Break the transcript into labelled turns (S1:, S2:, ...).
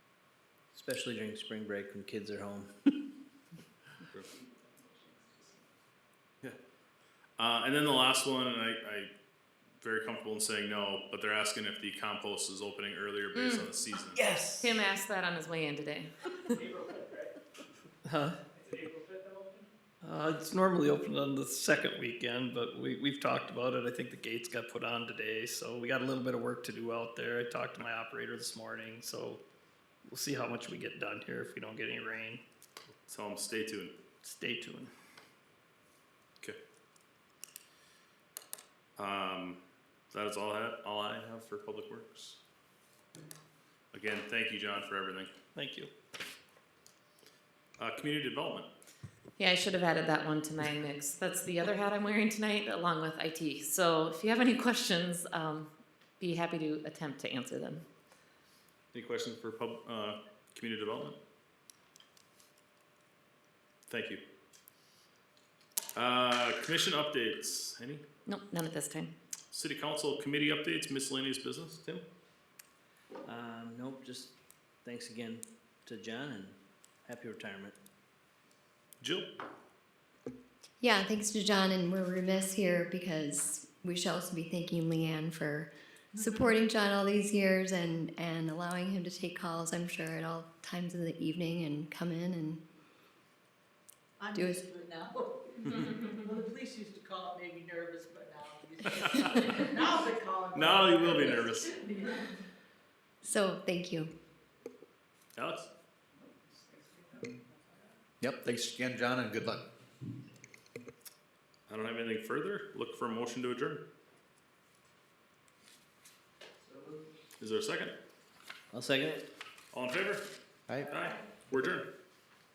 S1: Especially during spring break when kids are home.
S2: Uh, and then the last one, and I, I very comfortable in saying no, but they're asking if the compost is opening earlier based on the season.
S1: Yes.
S3: Tim asked that on his way in today.
S4: Huh? Uh, it's normally open on the second weekend, but we, we've talked about it. I think the gates got put on today, so we got a little bit of work to do out there. I talked to my operator this morning, so we'll see how much we get done here if we don't get any rain.
S2: Tell them stay tuned.
S4: Stay tuned.
S2: Okay. Um, that is all I have, all I have for Public Works. Again, thank you, John, for everything.
S4: Thank you.
S2: Uh, community development.
S3: Yeah, I should have added that one to my mix. That's the other hat I'm wearing tonight, along with IT. So if you have any questions, um, be happy to attempt to answer them.
S2: Any questions for pub, uh, community development? Thank you. Uh, commission updates. Any?
S3: Nope, none at this time.
S2: City council committee updates, miscellaneous business. Tim?
S1: Um, nope, just thanks again to John and happy retirement.
S2: Jill?
S5: Yeah, thanks to John, and we're remiss here because we should also be thanking Leanne for supporting John all these years and, and allowing him to take calls, I'm sure, at all times of the evening and come in and
S6: I'm
S5: Do it.
S6: used to it now. Well, the police used to call it made me nervous, but now I'm used to it. Now they call it.
S2: Now you will be nervous.
S5: so thank you.
S2: Alex?
S7: Yep, thanks again, John, and good luck.
S2: I don't have anything further. Look for a motion to adjourn. Is there a second?
S1: I'll second it.
S2: All in favor?
S7: Aye.
S2: Aye. We're adjourned.